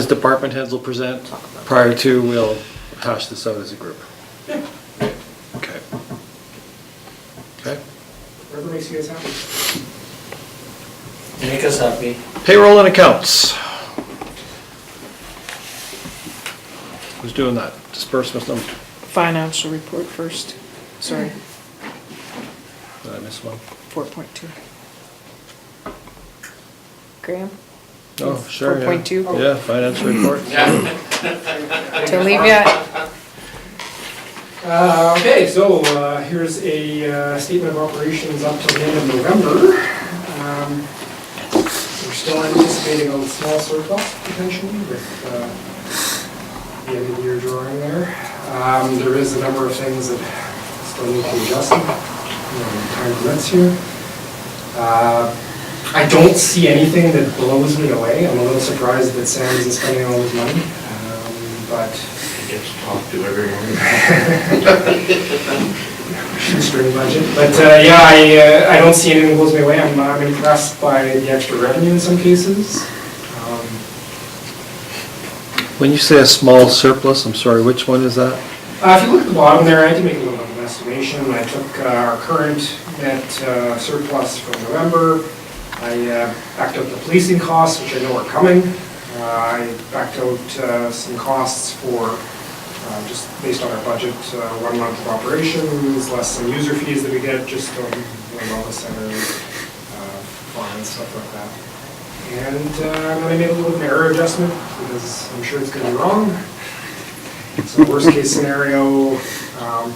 As department heads will present, prior to, we'll hash this out as a group. Okay. Okay. Whatever makes you guys happy. Make us happy. Payroll and accounts. Who's doing that? Disbursement number, Financial report first, sorry, did I miss one? four point two. Graham? Oh, sure, yeah. 4.2. Yeah, financial report. To leave yet? Uh, Okay, so uh, here's a uh, statement of operations up till the end of November. Um, We're still anticipating a small surplus potentially with uh, the end of year drawing there. Um, There is a number of things that still need to be adjusted, you know, time permits here. Uh, I don't see anything that blows me away. I'm a little surprised that Sam isn't spending all his money, um, but Gets talked to every morning. shoestring budget. But uh, yeah, I, uh, I don't see anything that blows me away. I'm, uh, I'm impressed by the extra revenue in some cases. Um, When you say a small surplus, I'm sorry, which one is that? uh, If you look at the bottom there, I did make a little bit of an estimation. I took uh, our current net uh, surplus from November. I uh, backed out the policing costs, which I know are coming. Uh, I backed out uh, some costs for, uh, just based on our budget, uh, one month of operations, less some user fees that we get, just on the wellness center, uh, fines, stuff like that. And uh, I'm gonna make a little bit of an error adjustment, because I'm sure it's gonna be wrong. So worst case scenario, um,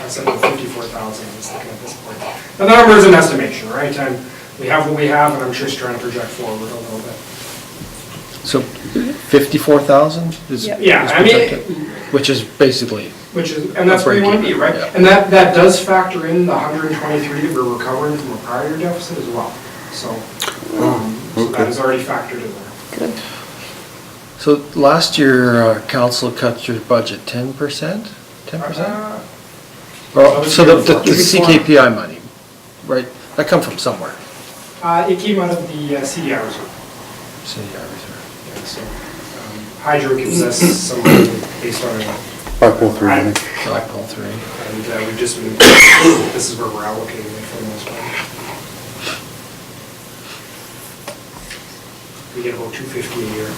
I said fifty-four thousand, I was looking at this point. Now, the number is an estimation, right? And we have what we have, and I'm just trying to project forward a little bit. So 54,000 is Yeah. Yeah, I mean- projected, Which is basically, Which is, and that's where you want to be, right? Yeah. And that, that does factor in the hundred and twenty-three that we're recovering from a prior year deficit as well. So, um, so that is already factored in there. Good. so last year, uh, council cut your budget 10%? 10%? Uh, Well, So the the- the Before. CKPI money, right, that come from somewhere, Uh, it came out of the uh, CDI reserve. city art reserve. Yeah, so, um, Hydro gives us some money based on our Five point three, I think. Blackpool three. And uh, we've just been, this is where we're allocating it for the most part. We get about two fifty a year.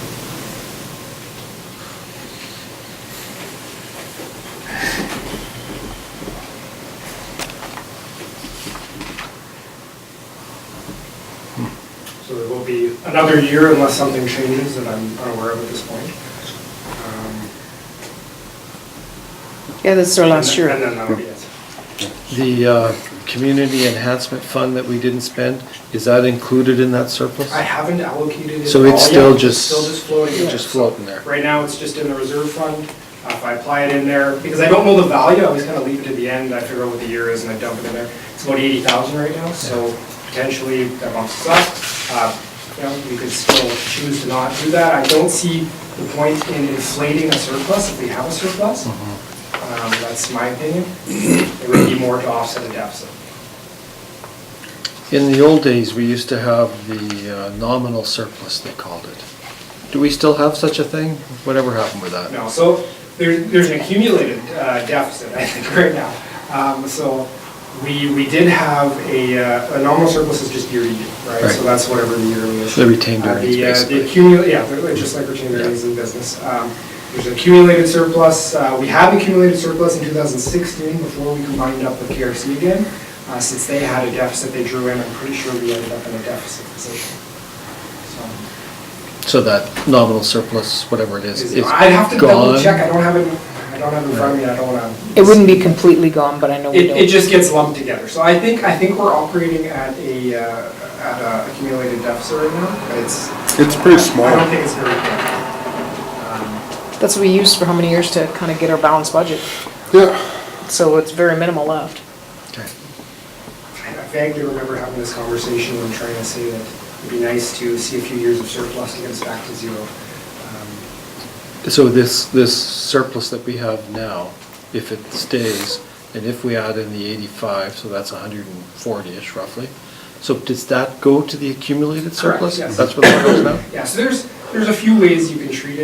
So there will be another year unless something changes that I'm unaware of at this point. Um, Yeah, this is our last And year. then that'll be it. The uh, community enhancement fund that we didn't spend, is that included in that surplus? I haven't allocated it. So it's all still yet. It's just. Still just floating. it's there. Just floating there. Right now, it's just in the reserve fund. Uh, If I apply it in there, because I don't know the value, I always kind of leave it to the end, I figure out what the year is and I dump it in there. It's about eighty thousand right now, so potentially that bumps us up. Uh, You know, we could still choose to not do that. I don't see the point in inflating a surplus if we have a surplus. Mm-hmm. Um, That's my opinion. It would be more to offset a deficit. In the old days, we used to have the uh, nominal surplus, they called it. Do we still have such a thing? Whatever happened with that? No, so there, there's an accumulated uh, deficit, I think, right now. Um, So we, we did have a, uh, a nominal surplus is just year to year, right? So Right. that's whatever the yearly is. The retained Uh, earnings, the, uh, basically. The accumulate, yeah, they're just like retained earnings in business. Um, There's an accumulated surplus, Uh, we had an accumulated surplus in 2016 before we combined up with KRC again. Uh, Since they had a deficit they drew in, I'm pretty sure we ended up in a deficit position. So So that nominal surplus, whatever it is, is gone? I'd have to double check, I don't have it, I don't have it in front of me, I don't wanna. It wouldn't be completely gone, but I know we It, don't. it just gets lumped together, so I think, I think we're operating at a, uh, at a accumulated deficit right now, but it's. It's pretty I don't small. think it's very Um, big. That's what we used for how many years to kind of get our balanced budget, Yeah, so it's very minimal left. Okay. Um, I vaguely remember having this conversation and trying to say that it'd be nice to see a few years of surplus to get us back to zero. Um, So this, this surplus that we have now, if it stays, and if we add in the 85, so that's 140-ish roughly, so does that go to the accumulated Correct, surplus? yes. That's what that goes now? Yeah, so there's, there's a few ways you can treat it.